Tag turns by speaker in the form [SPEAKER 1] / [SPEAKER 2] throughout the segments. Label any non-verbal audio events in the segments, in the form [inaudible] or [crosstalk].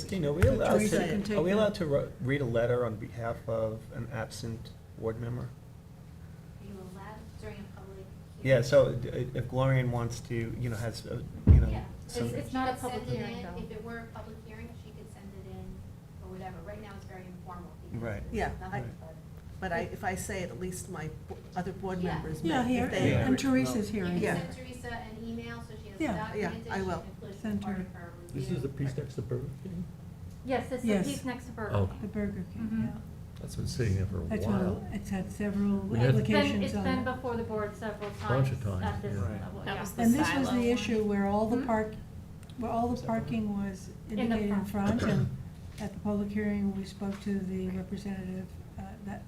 [SPEAKER 1] Christine, are we allowed
[SPEAKER 2] Teresa can
[SPEAKER 1] to,
[SPEAKER 2] take
[SPEAKER 1] are we
[SPEAKER 2] that.
[SPEAKER 1] allowed to ro- read a letter on behalf of an absent board member?
[SPEAKER 3] Are you allowed during a public hearing?
[SPEAKER 1] Yeah, so d- if Gloria wants to, you know, has, uh, you know,
[SPEAKER 3] Yeah.
[SPEAKER 1] some,
[SPEAKER 3] She
[SPEAKER 4] it's not a
[SPEAKER 3] could send
[SPEAKER 4] public
[SPEAKER 3] it
[SPEAKER 4] hearing,
[SPEAKER 3] in.
[SPEAKER 4] though.
[SPEAKER 3] If it were a public hearing, she could send it in or whatever. Right now, it's very informal. because
[SPEAKER 1] Right.
[SPEAKER 3] there's
[SPEAKER 2] Yeah,
[SPEAKER 3] nothing
[SPEAKER 1] I-
[SPEAKER 3] but-
[SPEAKER 2] But I, if I say it, at least my bo- other board
[SPEAKER 3] Yeah.
[SPEAKER 2] members may.
[SPEAKER 5] Yeah,
[SPEAKER 2] if
[SPEAKER 5] here,
[SPEAKER 2] they
[SPEAKER 1] Yeah.
[SPEAKER 5] and
[SPEAKER 2] agree.
[SPEAKER 5] Teresa's here.
[SPEAKER 3] You can
[SPEAKER 2] Yeah.
[SPEAKER 3] send Teresa an email so she has
[SPEAKER 5] Yeah.
[SPEAKER 3] the
[SPEAKER 5] Yeah,
[SPEAKER 3] documentation.
[SPEAKER 2] I will.
[SPEAKER 3] includes
[SPEAKER 5] Send
[SPEAKER 3] part
[SPEAKER 5] her.
[SPEAKER 3] of her
[SPEAKER 6] This
[SPEAKER 3] review.
[SPEAKER 6] is the piece next to Burger King?
[SPEAKER 4] Yes, it's the
[SPEAKER 5] Yes.
[SPEAKER 4] piece next to
[SPEAKER 6] Oh.
[SPEAKER 4] Burger
[SPEAKER 5] The
[SPEAKER 4] King.
[SPEAKER 5] Burger
[SPEAKER 2] Mm-hmm.
[SPEAKER 4] Mhm.
[SPEAKER 5] King,
[SPEAKER 6] That's been sitting there for a
[SPEAKER 5] yeah. That's all,
[SPEAKER 6] while.
[SPEAKER 5] it's had several
[SPEAKER 6] We had-
[SPEAKER 4] It's been,
[SPEAKER 5] applications
[SPEAKER 4] it's
[SPEAKER 5] on
[SPEAKER 4] been
[SPEAKER 5] it.
[SPEAKER 4] before the board several times.
[SPEAKER 6] Bunch of times,
[SPEAKER 4] at this
[SPEAKER 6] yeah.
[SPEAKER 1] Right.
[SPEAKER 4] level,
[SPEAKER 7] That
[SPEAKER 4] yeah.
[SPEAKER 7] was the
[SPEAKER 5] And this was
[SPEAKER 7] silo
[SPEAKER 5] the
[SPEAKER 7] one.
[SPEAKER 5] issue where all the
[SPEAKER 2] Hmm?
[SPEAKER 4] Mhm.
[SPEAKER 5] park, where all the parking was
[SPEAKER 4] In the
[SPEAKER 5] indicated in
[SPEAKER 4] front.
[SPEAKER 5] front, and at the public hearing, we spoke to the representative, uh, that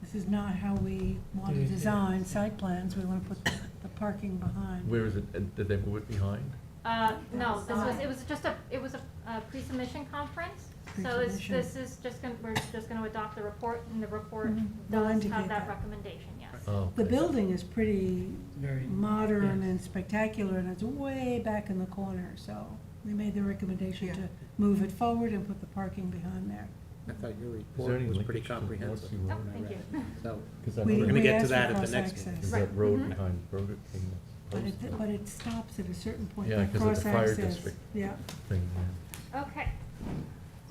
[SPEAKER 5] this is not how we want
[SPEAKER 6] Yeah,
[SPEAKER 5] to
[SPEAKER 6] yeah.
[SPEAKER 5] design site plans, we wanna put the parking behind.
[SPEAKER 6] Where is it, and did they move it behind?
[SPEAKER 4] Uh, no, this was,
[SPEAKER 3] Outside.
[SPEAKER 4] it was just a, it was a, uh pre-submission conference. So it's,
[SPEAKER 5] Pre-submission.
[SPEAKER 4] this is just gonna, we're just gonna adopt the report and the report
[SPEAKER 5] Mhm. We'll
[SPEAKER 4] does have
[SPEAKER 5] indicate
[SPEAKER 4] that
[SPEAKER 5] that.
[SPEAKER 4] recommendation, yes.
[SPEAKER 6] Oh,
[SPEAKER 5] The
[SPEAKER 6] okay.
[SPEAKER 5] building is pretty
[SPEAKER 1] Very-
[SPEAKER 5] modern
[SPEAKER 1] yes.
[SPEAKER 5] and spectacular, and it's way back in the corner, so they made the recommendation
[SPEAKER 2] Yeah.
[SPEAKER 5] to move it forward and put the parking behind there.
[SPEAKER 8] I thought your
[SPEAKER 6] Is there
[SPEAKER 8] report
[SPEAKER 6] any
[SPEAKER 8] was
[SPEAKER 6] linkage
[SPEAKER 8] pretty
[SPEAKER 6] to the North
[SPEAKER 8] comprehensive,
[SPEAKER 6] Sea
[SPEAKER 4] Oh,
[SPEAKER 6] Road?
[SPEAKER 4] thank [laughs] you.
[SPEAKER 8] so.
[SPEAKER 6] Cause that
[SPEAKER 5] We-
[SPEAKER 8] We're
[SPEAKER 6] road-
[SPEAKER 8] gonna
[SPEAKER 5] we
[SPEAKER 8] get
[SPEAKER 5] asked
[SPEAKER 8] to
[SPEAKER 5] for
[SPEAKER 8] that at the
[SPEAKER 5] cross-access.
[SPEAKER 8] next meeting.
[SPEAKER 6] Is
[SPEAKER 4] Right,
[SPEAKER 6] that road
[SPEAKER 4] mhm.
[SPEAKER 6] behind Burger King?
[SPEAKER 5] But it, but it stops at a certain point.
[SPEAKER 6] Yeah,
[SPEAKER 5] that
[SPEAKER 6] 'cause it's a fire
[SPEAKER 5] cross-access.
[SPEAKER 6] district.
[SPEAKER 5] Yeah.
[SPEAKER 6] Thing, yeah.
[SPEAKER 4] Okay.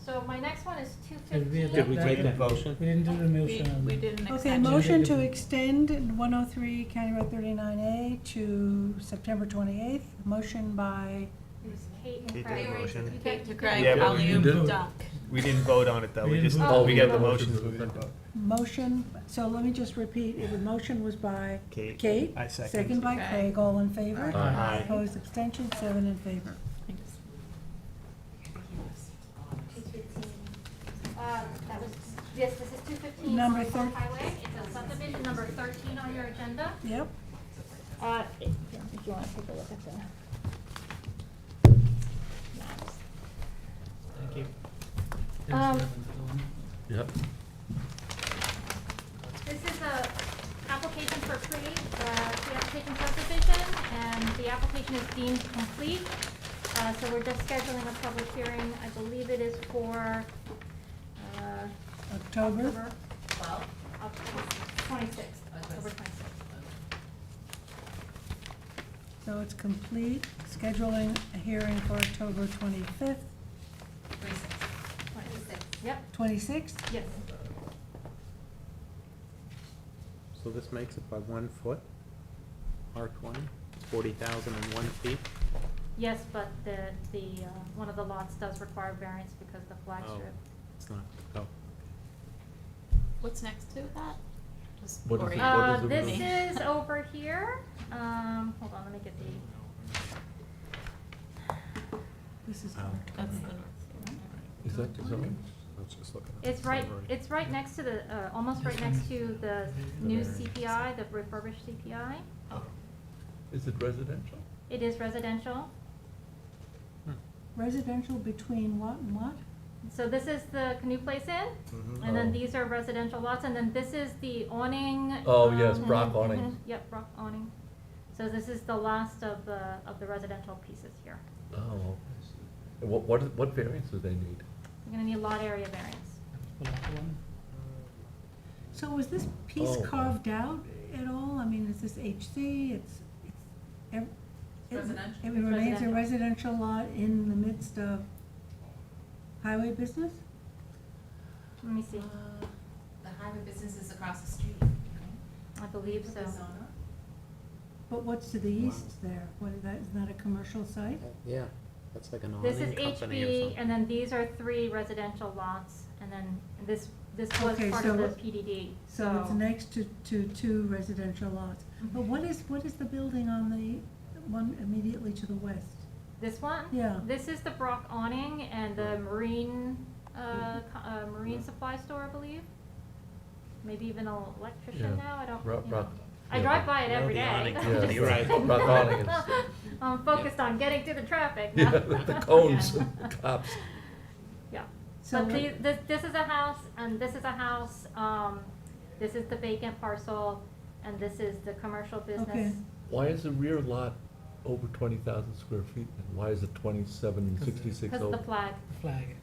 [SPEAKER 4] So my next one is two
[SPEAKER 9] Did we
[SPEAKER 4] fifteen.
[SPEAKER 9] adopt
[SPEAKER 8] we
[SPEAKER 9] that?
[SPEAKER 8] take that?
[SPEAKER 9] We
[SPEAKER 1] Motion?
[SPEAKER 9] didn't do the
[SPEAKER 7] We,
[SPEAKER 9] motion. on
[SPEAKER 7] we
[SPEAKER 9] that.
[SPEAKER 7] did an
[SPEAKER 5] Okay,
[SPEAKER 7] extension.
[SPEAKER 5] motion to extend one oh three County Road thirty-nine A to September twenty-eighth. Motion by,
[SPEAKER 4] It was
[SPEAKER 1] Kate
[SPEAKER 4] Kate
[SPEAKER 1] did
[SPEAKER 4] and
[SPEAKER 1] a
[SPEAKER 4] Craig.
[SPEAKER 1] motion.
[SPEAKER 4] You
[SPEAKER 7] Kate
[SPEAKER 4] did-
[SPEAKER 7] to
[SPEAKER 4] you
[SPEAKER 7] Craig,
[SPEAKER 1] Yeah, but we
[SPEAKER 6] didn't
[SPEAKER 7] alley-oop
[SPEAKER 6] do it.
[SPEAKER 7] dunk.
[SPEAKER 1] We didn't vote on it, though,
[SPEAKER 9] We
[SPEAKER 1] we
[SPEAKER 9] didn't
[SPEAKER 1] just,
[SPEAKER 4] vote.
[SPEAKER 1] we got the
[SPEAKER 4] Oh,
[SPEAKER 1] motions,
[SPEAKER 6] yeah.
[SPEAKER 1] but we didn't vote.
[SPEAKER 5] motion, so let me just repeat, it was, motion was by
[SPEAKER 1] Kate.
[SPEAKER 5] Kate.
[SPEAKER 1] I second.
[SPEAKER 5] Second by
[SPEAKER 7] Okay.
[SPEAKER 5] Craig, all in favor?
[SPEAKER 6] Aye.
[SPEAKER 1] Aye.
[SPEAKER 5] Opposed, abstention, seven in favor.
[SPEAKER 4] Two fifteen. Um, that was, yes, this is two fifteen.
[SPEAKER 5] Number thir-
[SPEAKER 4] Highway, it's a subdivision number thirteen on your agenda.
[SPEAKER 5] Yep.
[SPEAKER 4] Uh, if if you wanna take a look at the maps.
[SPEAKER 9] Thank you.
[SPEAKER 4] Um,
[SPEAKER 6] Yep,
[SPEAKER 4] This is a application for pre, uh, the application subdivision, and the application is deemed complete. Uh, so we're just scheduling a public hearing, I believe it is for, uh,
[SPEAKER 5] October,
[SPEAKER 4] October twelfth, October twenty-sixth, October twenty-sixth.
[SPEAKER 5] so it's complete, scheduling a hearing for October twenty-fifth,
[SPEAKER 3] Twenty-six.
[SPEAKER 4] Yep,
[SPEAKER 5] twenty-sixth?
[SPEAKER 4] yes,
[SPEAKER 8] So this makes it by one foot, R twenty, forty thousand and one feet.
[SPEAKER 4] yes, but the, the, uh, one of the lots does require variance because the flag
[SPEAKER 8] Oh,
[SPEAKER 4] strip.
[SPEAKER 8] It's not, oh,
[SPEAKER 7] What's next to that? Just
[SPEAKER 6] What is
[SPEAKER 7] Gloria.
[SPEAKER 6] it? What
[SPEAKER 4] Uh,
[SPEAKER 6] is it
[SPEAKER 4] this
[SPEAKER 6] with
[SPEAKER 4] is over here, um, hold on, let me get the,
[SPEAKER 5] This is
[SPEAKER 8] Oh.
[SPEAKER 7] That's the north.
[SPEAKER 6] is that the zone?
[SPEAKER 4] it's right, it's right next to the, uh, almost right next to the new CPI, the refurbished CPI.
[SPEAKER 6] Is it residential?
[SPEAKER 4] It is residential,
[SPEAKER 5] residential between what and what?
[SPEAKER 4] so this is the canoe place inn, and
[SPEAKER 6] Oh.
[SPEAKER 4] then these are residential lots, and then this is the awning.
[SPEAKER 6] Oh, yes,
[SPEAKER 4] um,
[SPEAKER 6] rock
[SPEAKER 4] mhm,
[SPEAKER 6] awnings.
[SPEAKER 4] [laughs] Yep, rock awning. So this is the last of the, of the residential pieces here.
[SPEAKER 6] Oh, okay. And what, what, what variance do they need?
[SPEAKER 4] You're gonna need lot area variance.
[SPEAKER 5] So was this piece
[SPEAKER 6] Oh.
[SPEAKER 5] carved out at all? I mean, is this HC, it's, it's, ev- it-
[SPEAKER 7] Residential.
[SPEAKER 5] It
[SPEAKER 4] It's
[SPEAKER 5] remains a
[SPEAKER 4] residential.
[SPEAKER 5] residential lot in the midst of highway business?
[SPEAKER 4] Let me see,
[SPEAKER 10] Uh, The highway business is across the street,
[SPEAKER 4] I believe so.
[SPEAKER 5] But what's to the east there? What, is that, is that a commercial site?
[SPEAKER 8] that- yeah, that's like an
[SPEAKER 4] This is
[SPEAKER 8] awning company or
[SPEAKER 4] HB,
[SPEAKER 8] something.
[SPEAKER 4] and then these are three residential lots, and then this, this was
[SPEAKER 5] Okay,
[SPEAKER 4] part
[SPEAKER 5] so
[SPEAKER 4] of the
[SPEAKER 5] it-
[SPEAKER 4] PDD, so.
[SPEAKER 5] So it's next to, to two residential lots. But what is, what is the building on the one immediately to the west?
[SPEAKER 4] This one?
[SPEAKER 5] Yeah.
[SPEAKER 4] This is the Brock awning and the marine,
[SPEAKER 6] Mm-hmm.
[SPEAKER 4] uh, co- uh, marine supply store, I believe. Maybe even an
[SPEAKER 6] Yeah.
[SPEAKER 4] electrician now, I don't,
[SPEAKER 6] Rock,
[SPEAKER 4] you know.
[SPEAKER 6] rock.
[SPEAKER 4] I
[SPEAKER 6] yeah,
[SPEAKER 4] drive
[SPEAKER 6] rock-
[SPEAKER 4] by it
[SPEAKER 8] No,
[SPEAKER 4] every
[SPEAKER 8] the
[SPEAKER 4] day. [laughs]
[SPEAKER 8] awning
[SPEAKER 4] I'm
[SPEAKER 6] company,
[SPEAKER 4] just
[SPEAKER 6] [laughs] right.
[SPEAKER 4] saying.
[SPEAKER 6] Rock awning is-
[SPEAKER 4] [laughs] I'm focused on getting through the traffic now.
[SPEAKER 6] [laughs] Yeah,
[SPEAKER 4] [laughs]
[SPEAKER 6] the cones, the cops.
[SPEAKER 4] Yeah.
[SPEAKER 5] So
[SPEAKER 4] But
[SPEAKER 5] what-
[SPEAKER 4] the, this, this is a house, and this is a house, um, this is the vacant parcel, and this is the commercial business.
[SPEAKER 5] Okay.
[SPEAKER 6] Why is the rear lot over twenty thousand square feet, and why is it twenty-seven and
[SPEAKER 9] Because of-
[SPEAKER 6] sixty-six
[SPEAKER 4] because of
[SPEAKER 6] over?
[SPEAKER 4] the flag.
[SPEAKER 9] Flag.